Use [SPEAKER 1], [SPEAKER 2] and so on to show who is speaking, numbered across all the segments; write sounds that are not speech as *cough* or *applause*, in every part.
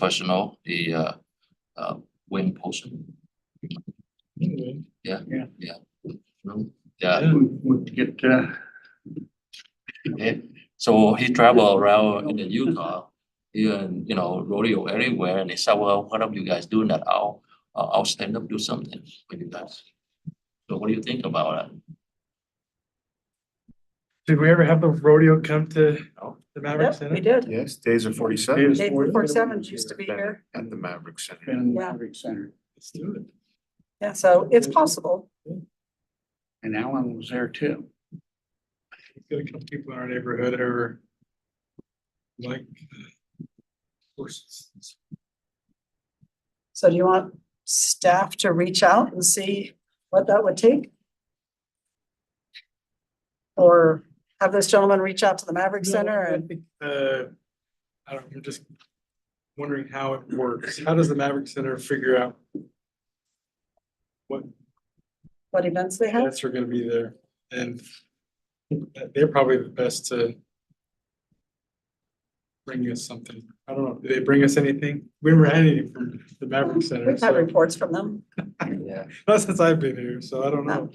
[SPEAKER 1] professional, the uh uh wind potion. Yeah.
[SPEAKER 2] Yeah.
[SPEAKER 1] Yeah,
[SPEAKER 2] Would would get, uh,
[SPEAKER 1] he- so he travel around in the Utah, even, you know, rodeo everywhere, and he said, well, why don't you guys do that? I'll uh, I'll I'll stand up, do something with you guys. So what do you think about that?
[SPEAKER 3] Did we ever have the rodeo come to
[SPEAKER 1] No.
[SPEAKER 3] the Maverick
[SPEAKER 4] Yep, We
[SPEAKER 3] Center?
[SPEAKER 4] did.
[SPEAKER 5] Yes, days of forty seven
[SPEAKER 2] Days.
[SPEAKER 4] Dave
[SPEAKER 2] Ford-
[SPEAKER 4] Ford Sevens used to be
[SPEAKER 5] Bennett.
[SPEAKER 4] here.
[SPEAKER 5] at the Maverick Center.
[SPEAKER 2] been
[SPEAKER 4] Yeah.
[SPEAKER 2] Maverick Center.
[SPEAKER 3] Let's do it.
[SPEAKER 4] Yeah, so it's possible.
[SPEAKER 2] And Alan was there too.
[SPEAKER 3] We've got a couple people in our neighborhood that are like uh, horses.
[SPEAKER 4] So do you want staff to reach out and see what that would take? Or have this gentleman reach out to the Maverick Center
[SPEAKER 3] No, I
[SPEAKER 4] and
[SPEAKER 3] think, Uh, I don't, I'm just wondering how it works. How does the Maverick Center figure out what
[SPEAKER 4] what events they have?
[SPEAKER 3] events are gonna be there? And they're probably the best to bring us something. I don't know, do they bring us anything? We never had anything from the Maverick Center,
[SPEAKER 4] We've had
[SPEAKER 3] so,
[SPEAKER 4] reports from them. Um,
[SPEAKER 1] Yeah.
[SPEAKER 3] not since I've been here, so I don't know.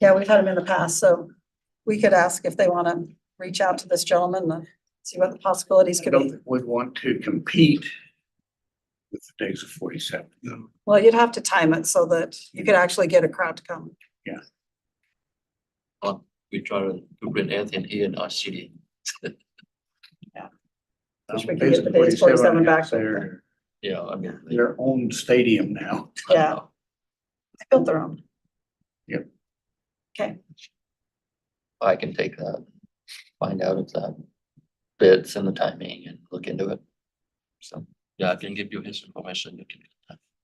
[SPEAKER 4] Yeah, we've had them in the past, so we could ask if they want to reach out to this gentleman and see what the possibilities
[SPEAKER 2] I
[SPEAKER 4] could
[SPEAKER 2] don't
[SPEAKER 4] be.
[SPEAKER 2] think we'd want to compete with the days of forty seven.
[SPEAKER 3] No.
[SPEAKER 4] Well, you'd have to time it so that you could actually get a crowd to come.
[SPEAKER 1] We try to to bring everything here in our city.
[SPEAKER 4] Wish we could get the days 47 back.
[SPEAKER 2] Their,
[SPEAKER 1] Yeah, I mean. like,
[SPEAKER 2] their own stadium now.
[SPEAKER 1] I don't
[SPEAKER 4] Yeah.
[SPEAKER 1] know.
[SPEAKER 4] They built their own.
[SPEAKER 1] I can take that, find out if that fits and the timing and look into it. So, yeah, I can give you his information. You can.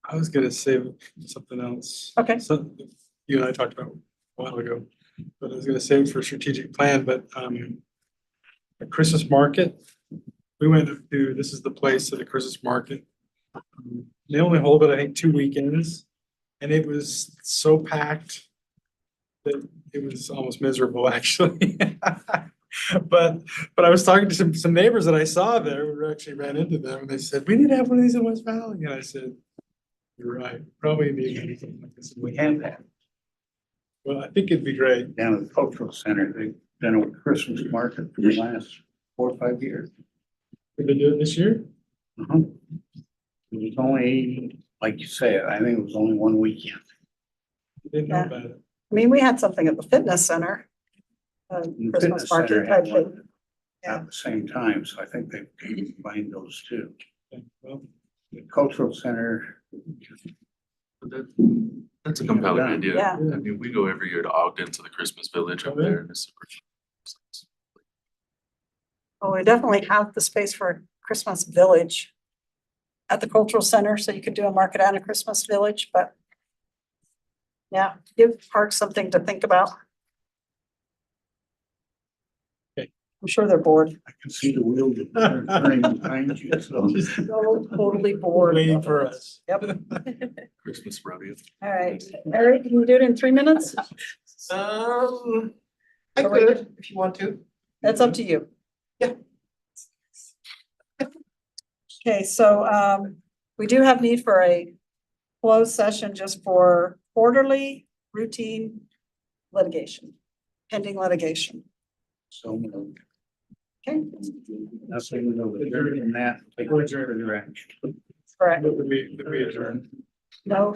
[SPEAKER 3] I was gonna say something else.
[SPEAKER 4] Okay.
[SPEAKER 3] So you and I talked about a while ago, but I was gonna save it for strategic plan, but um. The Christmas market, we went to, this is the place at the Christmas market. Um, They only hold it, I think, two weekends, and it was so packed. That it was almost miserable, *laughs* actually. But but I was talking to some some neighbors that I saw there, we actually ran into them, and they said, we need to have one of these in West Valley, and I said. You're right, probably need anything like this.
[SPEAKER 2] We have that
[SPEAKER 3] Well, I think it'd be great.
[SPEAKER 2] down at the cultural center. They've been on Christmas market for the last four or five years.
[SPEAKER 3] Did they do it this year?
[SPEAKER 2] Uh-huh.
[SPEAKER 3] Mm-hmm.
[SPEAKER 2] It was only, like you said, I think it was only one weekend.
[SPEAKER 3] I Didn't know
[SPEAKER 4] Yeah.
[SPEAKER 3] about it.
[SPEAKER 4] I mean, we had something at the fitness center. uh,
[SPEAKER 2] And the
[SPEAKER 4] Christmas
[SPEAKER 2] fitness
[SPEAKER 4] market
[SPEAKER 2] center
[SPEAKER 4] type
[SPEAKER 2] had
[SPEAKER 4] thing.
[SPEAKER 2] one At the same time, so I think they combined those two.
[SPEAKER 3] Okay, Well,
[SPEAKER 2] The cultural center,
[SPEAKER 6] That's a compelling
[SPEAKER 2] Yeah.
[SPEAKER 6] idea.
[SPEAKER 4] Yeah,
[SPEAKER 6] I mean, we go every year to Ogden to the Christmas Village up
[SPEAKER 3] Oh, yeah.
[SPEAKER 6] there and it's.
[SPEAKER 4] well, we definitely have the space for a Christmas village at the cultural center, so you could do a market and a Christmas village, but yeah, give parks something to think about.
[SPEAKER 3] Okay.
[SPEAKER 4] I'm sure
[SPEAKER 3] *laughs*
[SPEAKER 4] they're bored,
[SPEAKER 2] I can see the wheel turning behind
[SPEAKER 4] *laughs*
[SPEAKER 2] you, so.
[SPEAKER 4] totally bored.
[SPEAKER 3] waiting for us.
[SPEAKER 4] Yep,
[SPEAKER 6] Christmas rodeo.
[SPEAKER 4] all right. Eric, can you do it in three minutes?
[SPEAKER 7] Um, I
[SPEAKER 4] Or we
[SPEAKER 7] could, if you want to.
[SPEAKER 4] That's up to you.
[SPEAKER 7] Yeah.
[SPEAKER 4] Okay, so um, we do have need for a closed session just for orderly routine litigation, pending litigation.
[SPEAKER 2] So moved.
[SPEAKER 4] Okay,
[SPEAKER 2] Nothing over there in that. like, where's your direction?
[SPEAKER 4] correct.
[SPEAKER 3] That would be, that would be adjourned.
[SPEAKER 4] No